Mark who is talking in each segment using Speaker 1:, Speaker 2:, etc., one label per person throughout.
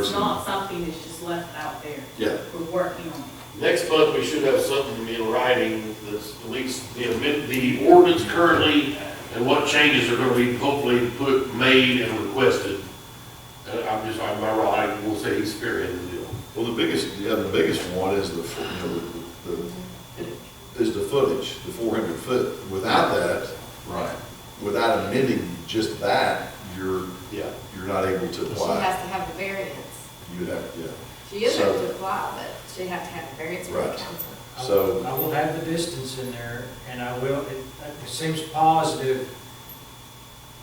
Speaker 1: It's not something that's just left out there.
Speaker 2: Yeah.
Speaker 1: We're working on it.
Speaker 3: Next month, we should have something in writing that's at least the amend, the ordinance currently and what changes are gonna be hopefully put, made and requested. Uh, I'm just, I'm not right, I will say he's spearheading the deal.
Speaker 2: Well, the biggest, yeah, the biggest one is the, fo- you know, the, the- is the footage, the four hundred foot. Without that,
Speaker 4: Right.
Speaker 2: without amending just that, you're,
Speaker 3: Yeah.
Speaker 2: you're not able to
Speaker 5: She
Speaker 2: apply.
Speaker 5: has to have the variance.
Speaker 2: You'd have, yeah.
Speaker 5: She is able
Speaker 2: So-
Speaker 5: to apply, but she'd have to have the variance from the
Speaker 2: Right.
Speaker 5: council.
Speaker 6: I will-
Speaker 2: So-
Speaker 6: I will have the distance in there, and I will, it it seems positive,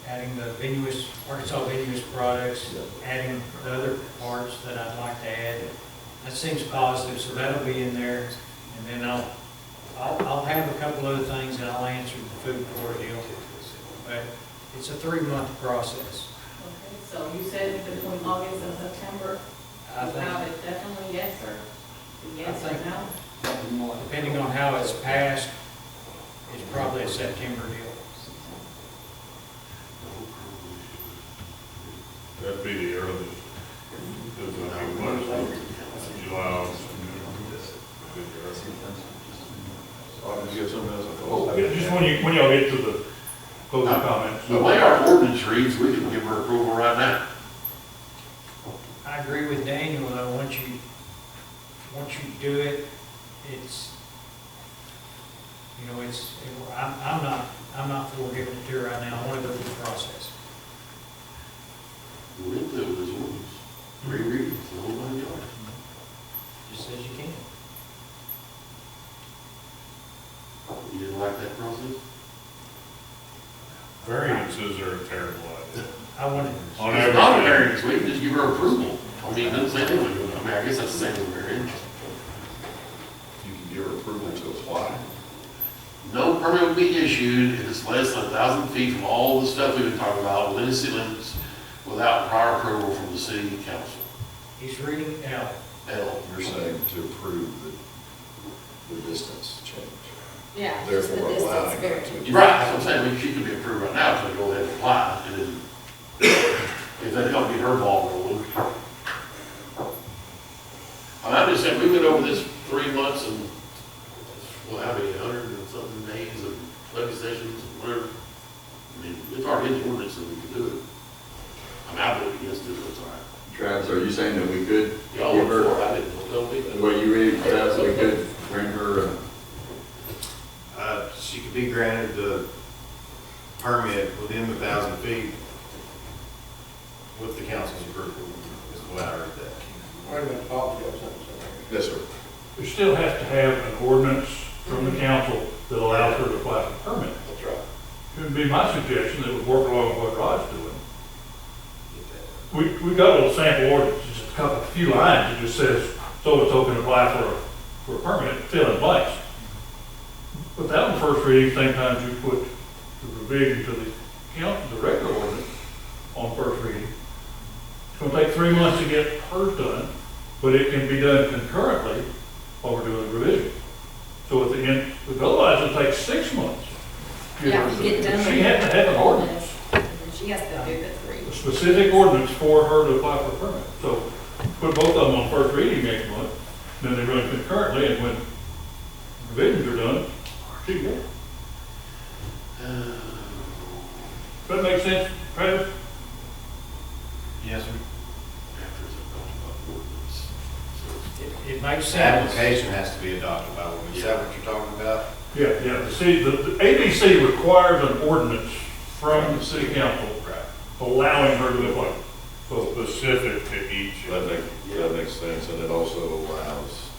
Speaker 6: adding the venuous, Arkansas venuous products, adding the other parts that I'd like to add. That seems positive, so that'll be in there, and then I'll, I'll, I'll have a couple other things, and I'll answer the food court deal. But it's a three-month process.
Speaker 1: Okay, So you said between August and September,
Speaker 6: I
Speaker 1: you
Speaker 6: think-
Speaker 1: found it definitely yes or yes
Speaker 6: I
Speaker 1: or
Speaker 6: think-
Speaker 1: no?
Speaker 6: Depending on how it's passed, it's probably a September deal.
Speaker 7: That'd be the earliest. Because I think what is it, July, August.
Speaker 2: Autumn, you have something else? I
Speaker 7: Yeah,
Speaker 2: thought?
Speaker 7: Oh, Just when you, when y'all get to the closing comments.
Speaker 3: The way our ordinance reads, we can give her approval right now.
Speaker 6: I agree with Daniel, though, once you, once you do it, it's, you know, it's, I'm, I'm not, I'm not for giving it to her right now, I want to go through the process.
Speaker 3: We're into this ordinance, three readings, the whole nine yards.
Speaker 6: Just as you can.
Speaker 3: You didn't like that process?
Speaker 7: Variances are a terrible idea.
Speaker 6: I want it,
Speaker 7: On
Speaker 3: It's not a
Speaker 7: average,
Speaker 3: variance, we can just give her approval. I mean, it doesn't say anything, I mean, I guess that's the same with variance.
Speaker 2: You can give her approval to apply.
Speaker 3: No permit will be issued if it's less than a thousand feet from all the stuff we've been talking about within the city limits without prior approval from the city council.
Speaker 6: he's reading it out.
Speaker 3: L.
Speaker 2: You're saying to approve the, the distance change.
Speaker 5: Yeah. just the
Speaker 2: Therefore
Speaker 5: distance
Speaker 2: allowing her
Speaker 5: variance.
Speaker 2: to.
Speaker 3: Right, that's what I'm saying, I mean, she could be approved right now, so go ahead and apply, and then if that helped get her ball rolling. And I'm just saying, we went over this three months and, well, how many, a hundred and something days of legislations, and whatever. I mean, it's our hidden ordinance, and we can do it. I mean, I voted against it, but it's all right.
Speaker 4: Travis, are you saying that we could
Speaker 3: Y'all
Speaker 4: give
Speaker 3: were for
Speaker 4: her,
Speaker 3: it, I didn't, don't be, but
Speaker 4: were you ready, Travis, we could bring her, uh,
Speaker 8: Uh, She could be granted the permit within the thousand feet with the council's approval, is the way I read that.
Speaker 9: Wait a minute, Bob, you have something to say?
Speaker 2: Yes, sir.
Speaker 7: we still have to have an ordinance from the council that allows her to apply for a permit.
Speaker 8: That's right.
Speaker 7: It would be my suggestion that we work along with what Rod's doing.
Speaker 8: Get that.
Speaker 7: We, we got a little sample ordinance, just a couple, a few lines, it just says, so and so can apply for, a- for a permit, fill in blanks. But that one first reading, same time as you put the revision to the count, the regular ordinance on first reading. It's gonna take three months to get hers done, but it can be done concurrently while we're doing the revision. So at the end, but otherwise it'll take six months. to
Speaker 5: Yeah,
Speaker 7: her
Speaker 5: you get
Speaker 7: done.
Speaker 5: done.
Speaker 7: She had to have an ordinance
Speaker 5: And then she has to do the three.
Speaker 7: a specific ordinance for her to apply for a permit. So put both of them on first reading next month, then they run concurrently, and when revisions are done, she can. go. Does that make sense, Travis?
Speaker 8: Yes, sir.
Speaker 3: after it's about ordinance. So
Speaker 6: It, it makes
Speaker 8: The
Speaker 6: sense.
Speaker 8: application has to be adopted by ordinance. Is that what you're talking about?
Speaker 7: Yeah, yeah, the city, the, the ABC requires an ordinance from the city council allowing her to apply. So Specific to each.
Speaker 2: That makes, that makes sense, and it also allows,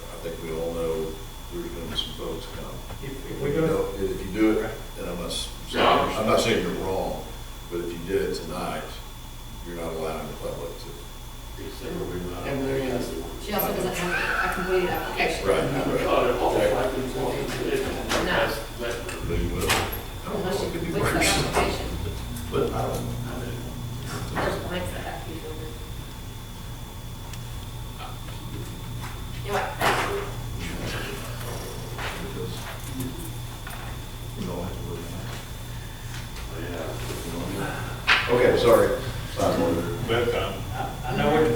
Speaker 2: I think we all know, there's been some folks come.
Speaker 6: If, if we go,
Speaker 2: If you do it, and I'm not, s-
Speaker 3: Yeah, I understand.
Speaker 2: I'm not saying you're wrong, but if you did it tonight, you're not allowing the public to.
Speaker 3: it's everywhere.
Speaker 9: And there is-
Speaker 5: She also doesn't have a completed application.
Speaker 2: Right, right.